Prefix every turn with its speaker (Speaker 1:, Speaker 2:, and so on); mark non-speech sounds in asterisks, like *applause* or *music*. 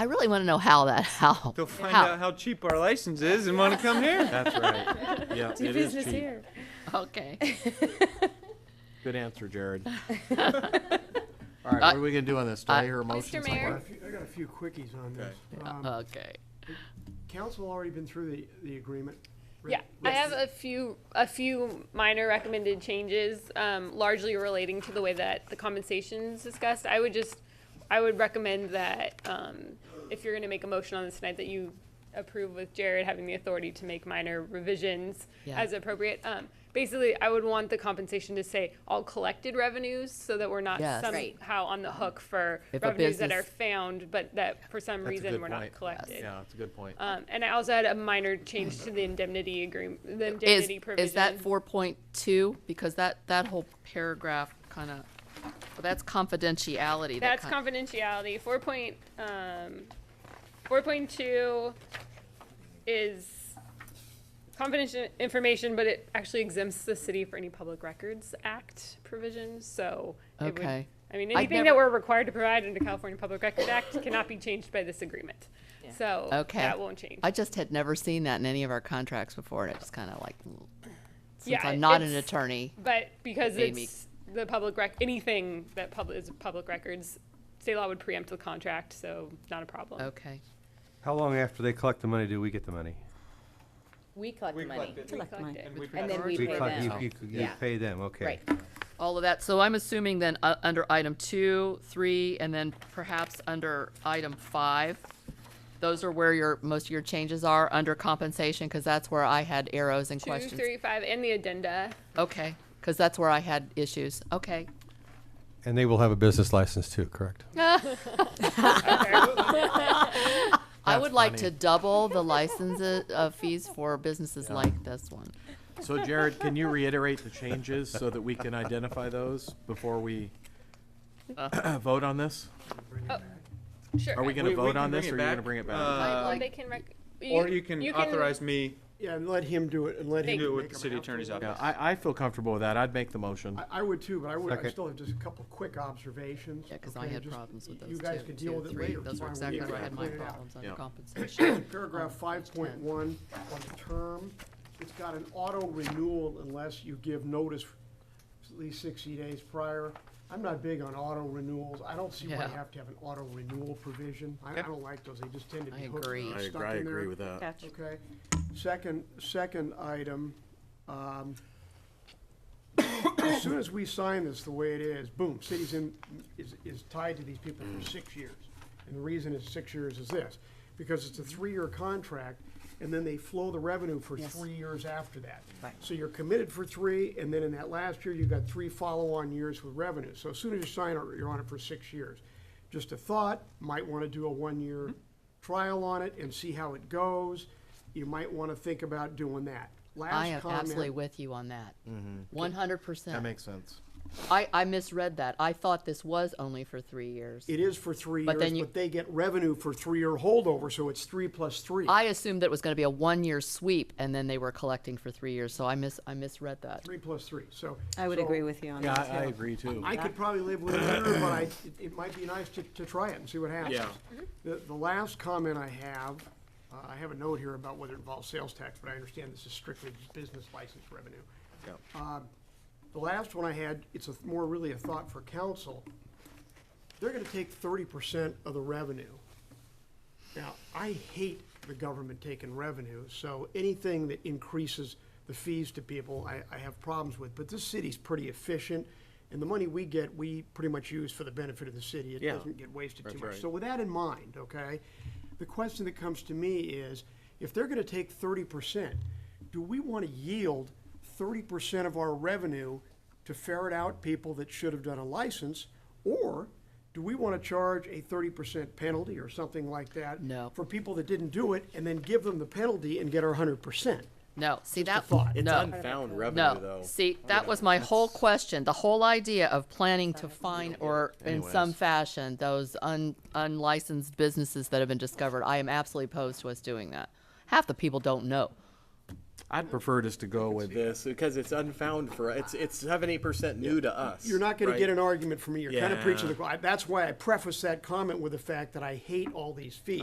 Speaker 1: I really want to know how that *laughs* how.
Speaker 2: They'll find
Speaker 1: how.
Speaker 2: out how cheap our license is and want to come here.
Speaker 3: *laughs* That's right. Yeah,
Speaker 4: Do
Speaker 3: it is
Speaker 4: business
Speaker 3: cheap.
Speaker 4: here.
Speaker 1: *laughs* Okay.
Speaker 3: Good answer, Jared. All right, what are we gonna do on this? Do I hear a motion
Speaker 5: Mr.
Speaker 3: somewhere?
Speaker 5: Mayor?
Speaker 6: I got a few quickies on this. Um,
Speaker 1: Okay.
Speaker 6: Council already been through the, the agreement. right?
Speaker 5: Yeah, I have a few, a few minor recommended changes, um, largely relating to the way that the compensation is discussed. I would just, I would recommend that, um, if you're gonna make a motion on this tonight, that you approve with Jared having the authority to make minor revisions
Speaker 1: Yeah.
Speaker 5: as appropriate. Um, basically, I would want the compensation to say all collected revenues, so that we're not
Speaker 1: Yes.
Speaker 5: somehow
Speaker 1: Right.
Speaker 5: on the hook for
Speaker 1: If a
Speaker 5: revenues that are
Speaker 1: business-
Speaker 5: found, but that for some
Speaker 3: That's a
Speaker 5: reason
Speaker 3: good
Speaker 5: were
Speaker 3: point.
Speaker 5: not collected.
Speaker 3: Yeah, that's a good point.
Speaker 5: Um, and I also had a minor change to the indemnity agreement, the
Speaker 1: Is,
Speaker 5: indemnity provision.
Speaker 1: is that four point two? Because that, that whole paragraph kind of, well, that's confidentiality. that
Speaker 5: That's
Speaker 1: kin-
Speaker 5: confidentiality. Four point, um, four point two is confidential information, but it actually exempts the city for any Public Records Act provisions, so. it would-
Speaker 1: Okay.
Speaker 5: I mean,
Speaker 1: I've
Speaker 5: anything that
Speaker 1: never-
Speaker 5: we're required to provide under California Public Records Act cannot be changed by this agreement. So
Speaker 1: Okay.
Speaker 5: that won't change.
Speaker 1: I just had never seen that in any of our contracts before, and I just kind of like, mm. since
Speaker 5: Yeah,
Speaker 1: I'm not an
Speaker 5: it's-
Speaker 1: attorney,
Speaker 5: But because
Speaker 1: Made me-
Speaker 5: it's the public rec, anything that public is public records, state law would preempt the contract, so not a problem.
Speaker 1: okay.
Speaker 7: How long after they collect the money do we get the money?
Speaker 4: We collect the money.
Speaker 5: collect
Speaker 4: money.
Speaker 5: it.
Speaker 2: we
Speaker 4: And then
Speaker 2: collect-
Speaker 4: we
Speaker 7: We
Speaker 4: pay
Speaker 7: collect-
Speaker 4: them.
Speaker 7: you- you- You
Speaker 4: Yeah.
Speaker 7: pay them, okay.
Speaker 4: Right.
Speaker 1: All of that. So I'm assuming then, uh, under item two, three, and then perhaps under item five, those are where your, most of your changes are, under compensation, because that's where I had arrows and
Speaker 5: Two,
Speaker 1: questions.
Speaker 5: three, five, and the addenda.
Speaker 1: Okay, because that's where I had issues. Okay.
Speaker 7: And they will have a business license too, correct?
Speaker 1: I
Speaker 3: That's
Speaker 1: would like to
Speaker 3: funny.
Speaker 1: double the license uh, fees for businesses
Speaker 3: Yeah.
Speaker 1: like this one.
Speaker 3: So Jared, can you reiterate the changes so that we can identify those before we vote on this?
Speaker 5: Sure.
Speaker 3: Are we gonna
Speaker 2: We- we
Speaker 3: vote
Speaker 2: can
Speaker 3: on this,
Speaker 2: bring
Speaker 3: or you're
Speaker 2: it
Speaker 3: gonna
Speaker 2: back.
Speaker 3: bring it back?
Speaker 2: Uh,
Speaker 5: Well, they can rec-
Speaker 2: Or you can authorize me
Speaker 6: Yeah, and let him do it, and let
Speaker 2: to
Speaker 6: him.
Speaker 2: do it with
Speaker 6: make
Speaker 2: the
Speaker 6: them
Speaker 2: city
Speaker 6: after.
Speaker 2: attorney's
Speaker 3: Yeah,
Speaker 2: office.
Speaker 3: I, I feel comfortable with that. I'd make the motion.
Speaker 6: I, I would too, but I would, I
Speaker 7: Second.
Speaker 6: still have just a couple of quick observations.
Speaker 1: Yeah, because I
Speaker 6: okay,
Speaker 1: had
Speaker 6: just-
Speaker 1: problems with those
Speaker 6: You guys
Speaker 1: two,
Speaker 6: can deal
Speaker 1: two,
Speaker 6: with it
Speaker 1: three.
Speaker 6: later.
Speaker 1: Those were
Speaker 6: Fine, we
Speaker 1: exactly
Speaker 6: can
Speaker 1: where I had my
Speaker 6: clear it out.
Speaker 1: problems under
Speaker 3: Yeah.
Speaker 6: *coughs*
Speaker 1: compensation.
Speaker 6: Paragraph
Speaker 1: On page
Speaker 6: five point one, on the term, it's got an auto renewal unless you give notice at least sixty days prior. I'm not big on auto renewals. I don't see why
Speaker 1: Yeah.
Speaker 6: you have to have an auto renewal provision. I, I don't like those. They just tend to
Speaker 1: I
Speaker 6: be hooked
Speaker 1: agree.
Speaker 6: and
Speaker 1: I
Speaker 3: I
Speaker 6: stuck in
Speaker 3: agree,
Speaker 6: there.
Speaker 3: I agree with that.
Speaker 4: Gotcha.
Speaker 6: Okay, second, second item, um, as soon as we sign this the way it is, boom, city's in, is, is tied to these people for six years. And the reason it's six years is this, because it's a three-year contract, and then they flow the revenue for three years after that. Right. So you're committed for three, and then in that last year, you've got three follow-on years with revenue. So as soon as you sign it, you're on it for six years. Just a thought, might wanna do a
Speaker 1: Mm-hmm.
Speaker 6: one-year trial on it and see how it goes. You might wanna think about doing that.
Speaker 1: I
Speaker 6: Last
Speaker 1: am
Speaker 6: comment.
Speaker 1: absolutely with you on that. One hundred
Speaker 3: Mm-hmm. That
Speaker 1: percent.
Speaker 3: makes sense.
Speaker 1: I, I misread that. I thought this was only for three years.
Speaker 6: It is for three
Speaker 1: But then
Speaker 6: years,
Speaker 1: you-
Speaker 6: but they get revenue for three-year holdover, so it's three plus three.
Speaker 1: I assumed that it was gonna be a one-year sweep, and then they were collecting for three years, so I mis, I misread that.
Speaker 6: Three plus three, so.
Speaker 4: I would
Speaker 6: so
Speaker 4: agree with you on
Speaker 3: Yeah,
Speaker 4: that.
Speaker 3: I, I agree too.
Speaker 6: I could probably live with a year, but I, it, it might be nice to, to try it and see what happens.
Speaker 3: Yeah.
Speaker 6: The, the last comment I have, uh, I have a note here about whether it involves sales tax, but I understand this is strictly business license revenue. Um, The last one I had, it's a, more really a thought for council. They're gonna take thirty percent of the revenue. Now, I hate the government taking revenue, so anything that increases the fees to people, I, I have problems with. But this city's pretty efficient, and the money we get, we pretty much use for the benefit of the city. It
Speaker 2: Yeah.
Speaker 6: doesn't get wasted too
Speaker 2: That's
Speaker 6: much.
Speaker 2: right.
Speaker 6: So with that in mind, okay, the question that comes to me is, if they're gonna take thirty percent, do we wanna yield thirty percent of our revenue to ferret out people that should have done a license? Or do we wanna charge a thirty percent penalty or something like that?
Speaker 1: No.
Speaker 6: For people that didn't do it, and then give them the penalty and get our hundred percent?
Speaker 1: No, see that,
Speaker 6: thought. It's
Speaker 1: no.
Speaker 3: unfound revenue,
Speaker 1: No, see, that was my whole question, the whole idea of planning to fine or in some
Speaker 3: Anyways.
Speaker 1: fashion, those un, unlicensed businesses that have been discovered, I am absolutely opposed to us doing that. Half the people don't know.
Speaker 8: I'd prefer just to go with this.
Speaker 3: this because it's unfound for it's it's seventy percent new to us.
Speaker 6: You're not going to
Speaker 3: right?
Speaker 6: get an argument from me. You're kind of preaching to the
Speaker 3: Yeah.
Speaker 6: choir. That's why I preface that comment with the fact that I hate all these fees.